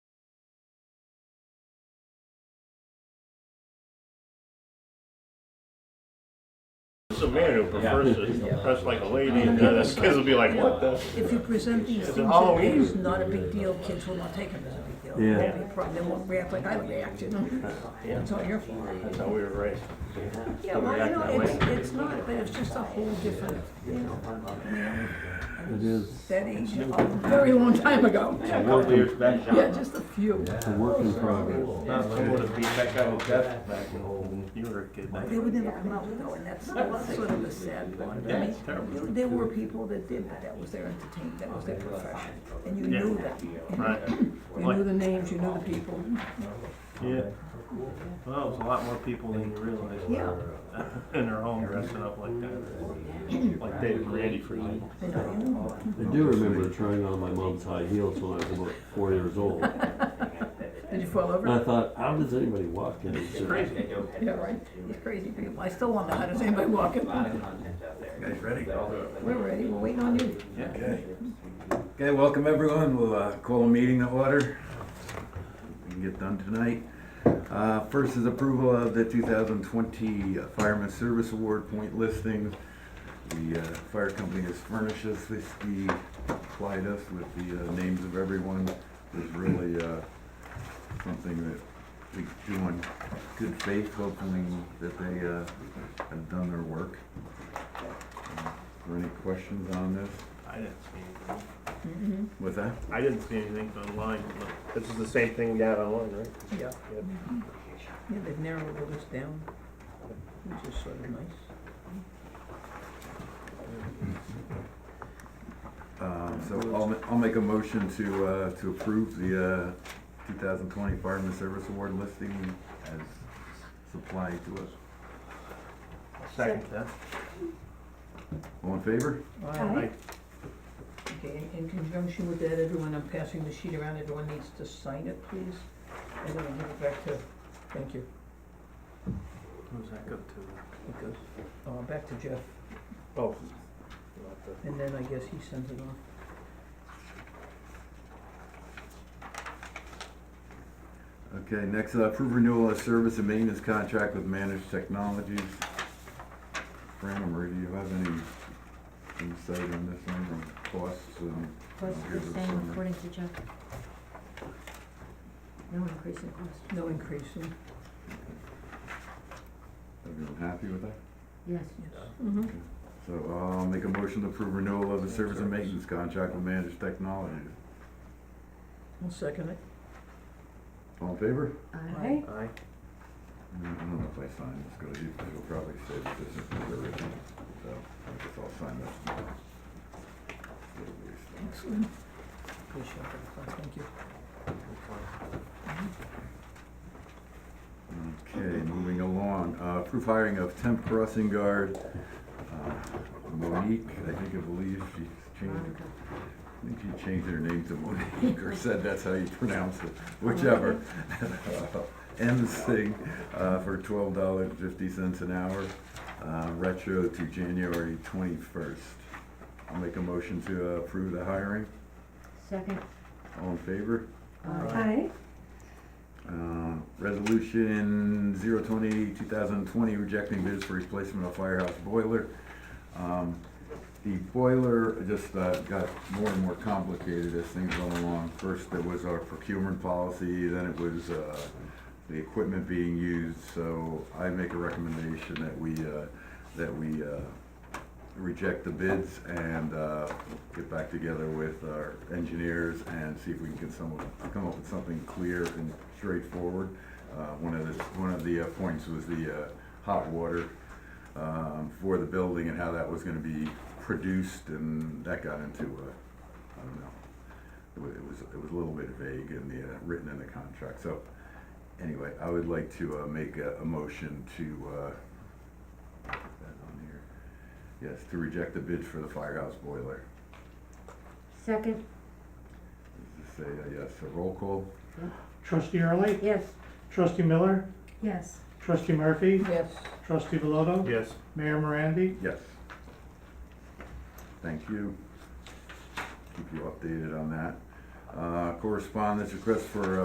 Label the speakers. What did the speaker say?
Speaker 1: It's a man who prefers to dress like a lady, and then the kids will be like, what the?
Speaker 2: If you present these things, that
Speaker 1: Halloween.
Speaker 2: it's not a big deal, kids will not take it as a big deal.
Speaker 3: Yeah.
Speaker 2: They'll be proud, they won't react like I reacted. It's all your fault.
Speaker 1: That's how we were raised.
Speaker 2: Yeah, well, you know, it's, it's not, but it's just a whole different, you know,
Speaker 3: It is
Speaker 2: that age, a very long time ago.
Speaker 4: A couple years back,
Speaker 2: Yeah,
Speaker 4: John.
Speaker 2: just a few.
Speaker 3: a work in progress.
Speaker 4: Not someone to beat that guy with death back in old.
Speaker 1: You were a kid.
Speaker 2: They would never come out though, and that's that's sort of the sad part. I mean, there- There were people that did, but that was their entertainment, that was their profession, and you knew that.
Speaker 1: Right.
Speaker 2: You knew the names, you knew the people.
Speaker 1: Yeah. Well, it was a lot more people than you realize.
Speaker 2: Yeah.
Speaker 1: uh, In their home dressing up like that. Like David Randy for example.
Speaker 2: They know you.
Speaker 3: I do remember trying on my mom's high heels when I was about four years old. And
Speaker 2: Did you fall
Speaker 3: I
Speaker 2: over?
Speaker 3: thought, how does anybody walk in these shoes?
Speaker 2: Yeah, right. These crazy people. I still wonder how does anybody walk in. We're
Speaker 5: Ready?
Speaker 2: ready. We're waiting on you.
Speaker 5: Okay. Okay, welcome everyone. We'll uh, call a meeting to order. We can get done tonight. Uh, First is approval of the 2020 Fireman Service Award point listings. The uh, fire company has furnished us this, he supplied us with the uh, names of everyone. It's really uh, something that we do in good faith, hoping that they uh, have done their work. Are there any questions on this?
Speaker 1: I didn't see anything.
Speaker 2: Mm-hmm.
Speaker 5: What's that?
Speaker 1: I didn't see anything online. but This is the same thing we got online, right?
Speaker 2: Yeah.
Speaker 1: Yep.
Speaker 2: Yeah, they've narrowed all this down, which is sort of nice.
Speaker 5: Um, So I'll, ma- I'll make a motion to, uh, to approve the, uh, two thousand twenty Fireman Service Award listing as supplied to us.
Speaker 1: Second that.
Speaker 5: All in favor?
Speaker 1: Right.
Speaker 2: Okay, in- in conjunction with that, everyone, I'm passing the sheet around, everyone needs to sign it, please. And then I'll give it back to, thank you,
Speaker 1: Who's that go to?
Speaker 2: it goes, uh, back to Jeff,
Speaker 1: Oh.
Speaker 2: and then I guess he sends it off.
Speaker 5: Okay, next, uh, approve renewal of service and maintenance contract with Managed Technologies. Fran, do you have any insight on this one, on costs Um, and?
Speaker 6: Costs are the same according to Chuck. No increase in cost.
Speaker 2: No increase in,
Speaker 5: Everyone happy with that?
Speaker 6: Yes.
Speaker 2: yes.
Speaker 5: So, uh, I'll make a motion to approve renewal of the service and maintenance contract with Managed Technologies.
Speaker 2: I'll second it.
Speaker 5: All in favor?
Speaker 6: Aye.
Speaker 1: Aye.
Speaker 5: I don't know if I sign this, because you'll probably say that this is the original, so I guess I'll sign this.
Speaker 2: Excellent. Appreciate it, thank you.
Speaker 5: Okay, moving along, uh, proof hiring of temp crossing guard, uh, Monique, I think I believe she's changed,
Speaker 6: Veronica.
Speaker 5: I think she changed her name to Monique, or said that's how you pronounce it, whichever. M Singh, uh, for twelve dollars fifty cents an hour, uh, retro to January twenty-first. I'll make a motion to uh, approve the hiring,
Speaker 6: Second.
Speaker 5: all in favor?
Speaker 6: Aye.
Speaker 5: Uh, Resolution 020, 2020, rejecting bids for replacement of firehouse boiler. Um, The boiler just uh, got more and more complicated as things went along. First, there was our procurement policy, then it was uh, the equipment being used. So I make a recommendation that we, uh, that we uh, reject the bids and uh, get back together with our engineers and see if we can get some, come up with something clear and straightforward. Uh, One of the, one of the uh, points was the uh, hot water um, for the building and how that was gonna be produced, and that got into, uh, I don't know. It wa- It was, it was a little bit vague in the, uh, written in the contract, so anyway, I would like to uh, make a, a motion to, uh, put that on here. Yes, to reject the bid for the firehouse boiler.
Speaker 6: Second,
Speaker 5: Just say uh, yes, a roll call.
Speaker 7: Trustee Early,
Speaker 6: yes.
Speaker 7: Trustee Miller,
Speaker 6: Yes.
Speaker 7: Trustee Murphy,
Speaker 2: Yes,
Speaker 7: Trustee Veloto,
Speaker 1: Yes.
Speaker 7: Mayor Morandi.
Speaker 5: Yes. Thank you. Keep you updated on that. Uh, Correspondence request for uh,